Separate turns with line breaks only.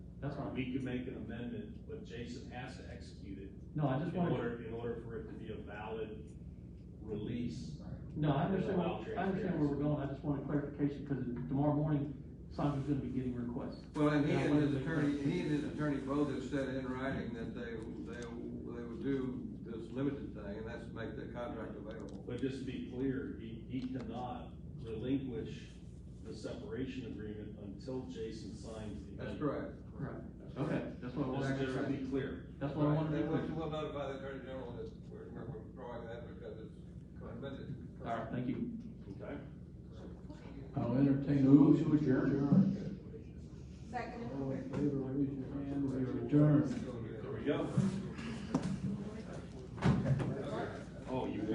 That's fine.
We could make an amendment, but Jason has to execute it
No, I just
in
wanted,
order, in order for it to be a valid release.
no, I understand,
Allow
what- I understand where we're going, I just wanted clarification, because tomorrow morning, Simon's gonna be getting requests.
Well, and he
Yeah, I
and
wanted to make
his
that
attorney, he
clear.
and his attorney both have said in writing that they, they, they would do this limited thing, and that's make the contract available.
But just to be clear, he, he cannot relinquish the separation agreement until Jason signs the. amendment.
That's correct.
Right. Okay, that's what I
Just,
wanted,
just to be clear.
that's what I wanted to
Right,
be
We'll
clear.
we'll notify the attorney general that we're, we're drawing that because it's limited.
All right, thank you.
Okay.
I'll entertain a motion to adjourn.
Second.
All in favor, raise your hand, we are adjourned.
There we go. Oh,